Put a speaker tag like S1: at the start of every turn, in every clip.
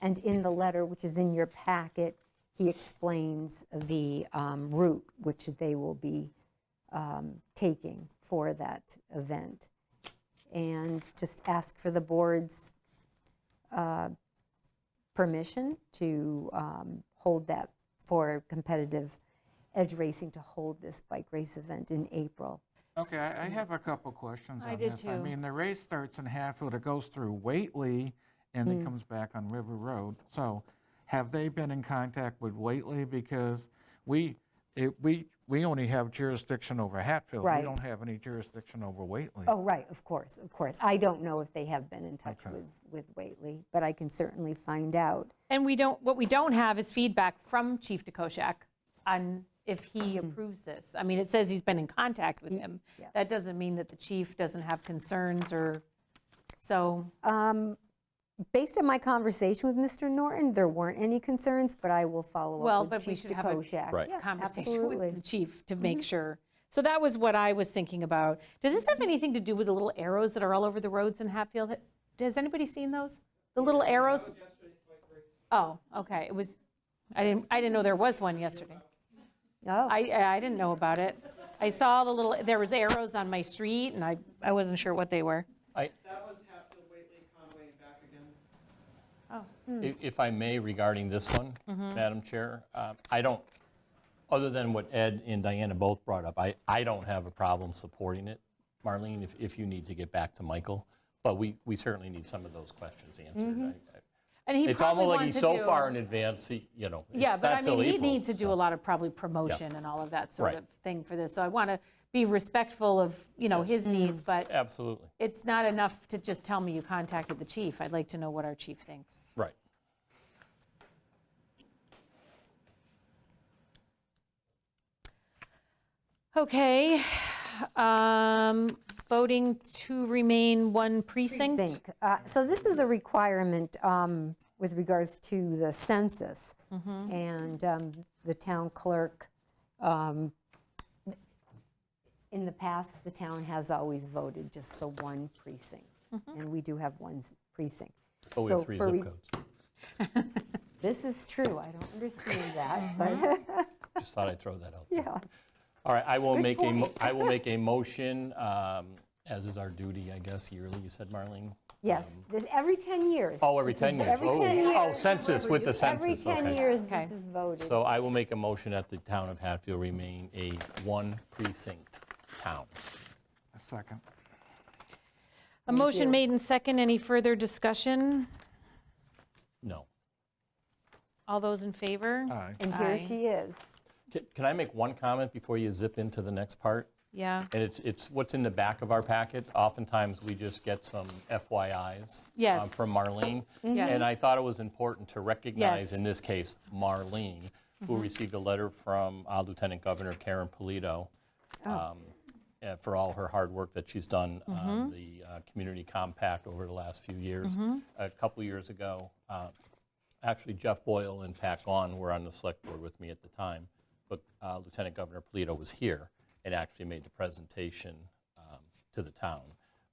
S1: And in the letter, which is in your packet, he explains the um, route which they will be um, taking for that event. And just ask for the board's uh, permission to um, hold that for competitive edge racing, to hold this bike race event in April.
S2: Okay, I I have a couple questions
S3: I
S2: on
S3: did
S2: this.
S3: too.
S2: mean, the race starts in Hatfield, it goes through Whately, and
S3: Hmm.
S2: it comes back on River Road. So have they been in contact with Whately? Because we, it, we, we only have jurisdiction over Hatfield.
S1: Right.
S2: We don't have any jurisdiction over Whately.
S1: Oh, right, of course, of course. I don't know if they have been in touch with, with Whately, but I can certainly find out.
S3: And we don't, what we don't have is feedback from Chief DeKoschak on if he
S1: Mm-hmm.
S3: approves this. I mean, it says he's been in contact with him. That doesn't mean that the chief doesn't have concerns or, so,
S1: Um, Based on my conversation with Mr. Norton, there weren't any concerns, but I will follow
S3: well,
S1: up with
S3: but we
S1: Chief
S3: should have a
S1: DeKoschak.
S4: Right.
S1: Yeah,
S3: conversation
S1: absolutely. Mm-hmm.
S3: with the chief to make sure. So that was what I was thinking about. Does this
S1: Mm-hmm.
S3: have anything to do with the little arrows that are all over the roads in Hatfield? Has anybody seen those? The little arrows? Oh, okay, it was, I didn't, I didn't know there was one yesterday.
S1: Oh,
S3: I, I didn't know about it. I saw the little, there was arrows on my street, and I, I wasn't sure what they were.
S4: I,
S5: That was Hatfield, Waitley, Conway, and back again.
S3: Oh, hmm.
S4: i- If I may, regarding this one,
S3: Mm-hmm.
S4: Madam Chair, uh, I don't, other than what Ed and Diana both brought up, I, I don't have a problem supporting it, Marlene, if, if you need to get back to Michael, but we, we certainly need some of those questions answered. I- I-
S3: And Mm-hmm. he
S4: It's
S3: probably
S4: almost like
S3: wanted
S4: he's
S3: to
S4: so
S3: do-
S4: far in advance, he- you know. it's
S3: Yeah, but
S4: not
S3: I
S4: till
S3: mean, he
S4: April,
S3: needs to do a
S4: so-
S3: lot of probably promotion and all of that sort
S4: Right.
S3: of thing for this. So I want to be respectful of, you know, his needs, but
S4: Absolutely,
S3: it's not enough to just tell me you contacted the chief. I'd like to know what our chief thinks.
S4: right.
S3: Okay, um, voting to remain one precinct?
S1: think. uh, So this is a requirement um, with regards to the census.
S3: Mm-hmm.
S1: And um, the town clerk, um, in the past, the town has always voted just the one precinct.
S3: Mm-hmm.
S1: And we do have one s- precinct.
S4: But we
S1: So
S4: have three
S1: for re-
S4: zip codes.
S1: This is true, I don't understand that,
S3: Mm-hmm.
S1: but,
S4: Just thought I'd throw that out there.
S1: yeah.
S4: All right, I will make a, mo- I will make a motion, um, as is our duty, I guess, yearly, you said, Marlene?
S1: Yes, this, every 10 years.
S4: Um, Oh, every
S1: This
S4: 10
S1: is
S4: years.
S1: Every
S4: Oh.
S1: 10 years.
S4: Oh, census, with the
S1: Every
S4: census,
S1: 10
S4: okay.
S1: years,
S3: Okay.
S1: this is voted.
S4: So I will make a motion that the town of Hatfield remain a one precinct town.
S2: A second.
S3: A motion made in second. Any further discussion?
S4: No.
S3: All those in favor?
S4: Uh,
S2: All right.
S1: And here
S3: Aye.
S1: she is.
S4: Ca- Can I make one comment before you zip into the next part?
S3: Yeah,
S4: And it's, it's what's in the back of our packet. Oftentimes, we just get some FYIs. um,
S3: Yes.
S4: From Marlene.
S1: Mm-hmm.
S3: Yes.
S4: And I thought it was important to
S3: Mm-hmm. Yes.
S4: recognize, in this case, Marlene, who received a letter from uh, Lieutenant Governor Karen Polito um, uh, for all her hard work that she's done on the uh, community compact over the last few years. A couple years ago, uh, actually Jeff Boyle and Pat Gahn were on the select board with me at the time, but uh, Lieutenant Governor Polito was here and actually made the presentation um, to the town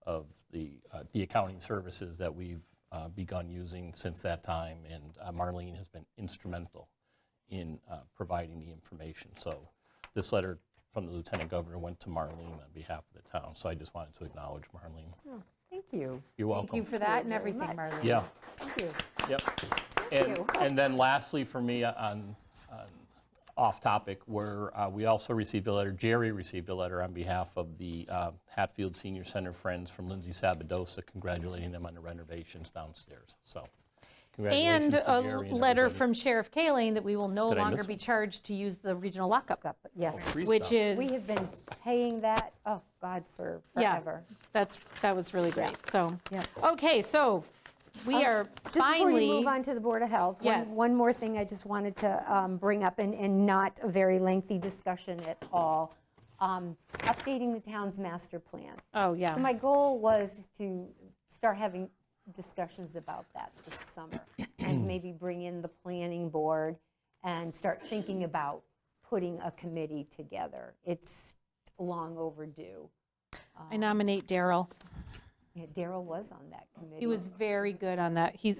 S4: of the, uh, the accounting services that we've uh, begun using since that time, and uh, Marlene has been instrumental in uh, providing the information. So this letter from the Lieutenant Governor went to Marlene on behalf of the town, so I just wanted to acknowledge Marlene.
S1: Thank you.
S4: You're welcome.
S3: thank you for that and
S1: very
S3: everything,
S1: much.
S3: Marlene.
S4: Yeah.
S1: Thank you.
S4: Yep. And,
S1: you.
S4: and then lastly, for me, uh, on, on off-topic, where uh, we also received a letter, Jerry received a letter on behalf of the uh, Hatfield Senior Center Friends from Lindsay Sabadosa, congratulating them on the renovations downstairs, so congratulations
S3: And
S4: to
S3: a
S4: Jerry and
S3: letter
S4: everybody.
S3: from Sheriff Kaling that we will no
S4: Did I
S3: longer
S4: miss
S3: be
S4: one?
S3: charged to use the regional lockup,
S1: Got- Yes,
S4: Free
S3: which
S4: stuff.
S3: is.
S1: we have been paying that, oh, God, for
S3: Yeah,
S1: forever.
S3: that's, that was really great, so.
S1: Yeah. Um,
S3: Okay, so we are
S1: Just before
S3: finally.
S1: you move on to the Board of Health, one-
S3: Yes.
S1: one more thing I just wanted to um, bring up, and- and not a very lengthy discussion at all, Um, updating the town's master plan.
S3: Oh, yeah.
S1: So my goal was to start having discussions about that this summer, and maybe bring in the planning board and start thinking about putting a committee together. It's long overdue.
S3: I nominate Daryl.
S1: Yeah, Daryl was on that committee.
S3: He was very good on that. He's,